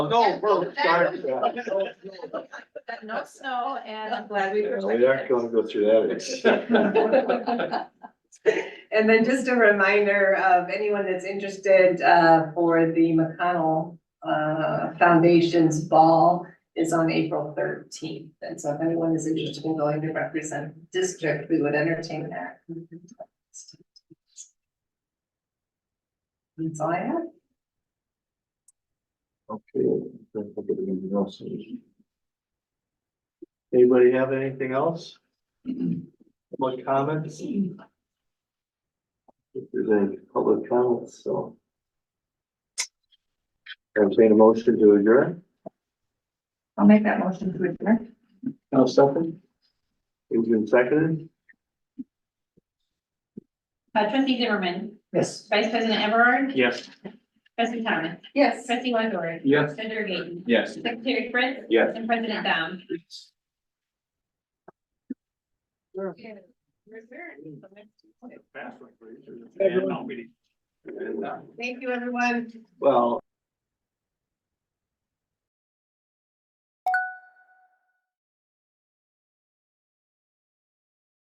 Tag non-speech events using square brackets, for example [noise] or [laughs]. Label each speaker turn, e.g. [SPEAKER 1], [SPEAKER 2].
[SPEAKER 1] No, we're sorry.
[SPEAKER 2] But no snow and I'm glad we. were-
[SPEAKER 1] We aren't gonna go
[SPEAKER 3] [laughs]
[SPEAKER 1] through that.
[SPEAKER 4] And then just a reminder of anyone that's interested uh, for the McConnell uh, Foundation's ball is on April thirteenth. And so if anyone is interested in going to represent the district, we would entertain that. That's all I have.
[SPEAKER 1] Okay. don't forget anything else. Anybody have anything else? More comments? If there's any public comments, so. Entertain a motion to adjourn?
[SPEAKER 5] I'll make that motion to adjourn.
[SPEAKER 1] No, second. It's been seconded?
[SPEAKER 6] Uh, trustee Zimmerman,
[SPEAKER 5] Yes.
[SPEAKER 6] vice president Everard,
[SPEAKER 3] Yes.
[SPEAKER 6] trustee Thomas,
[SPEAKER 4] Yes.
[SPEAKER 6] trustee Wendorick,
[SPEAKER 3] Yes.
[SPEAKER 6] Senator Gaten,
[SPEAKER 3] Yes.
[SPEAKER 6] secretary Fritz.
[SPEAKER 3] Yes.
[SPEAKER 6] And president Dom.
[SPEAKER 3] Fast one, please. And I'll be-
[SPEAKER 4] Thank you, everyone.
[SPEAKER 1] Well.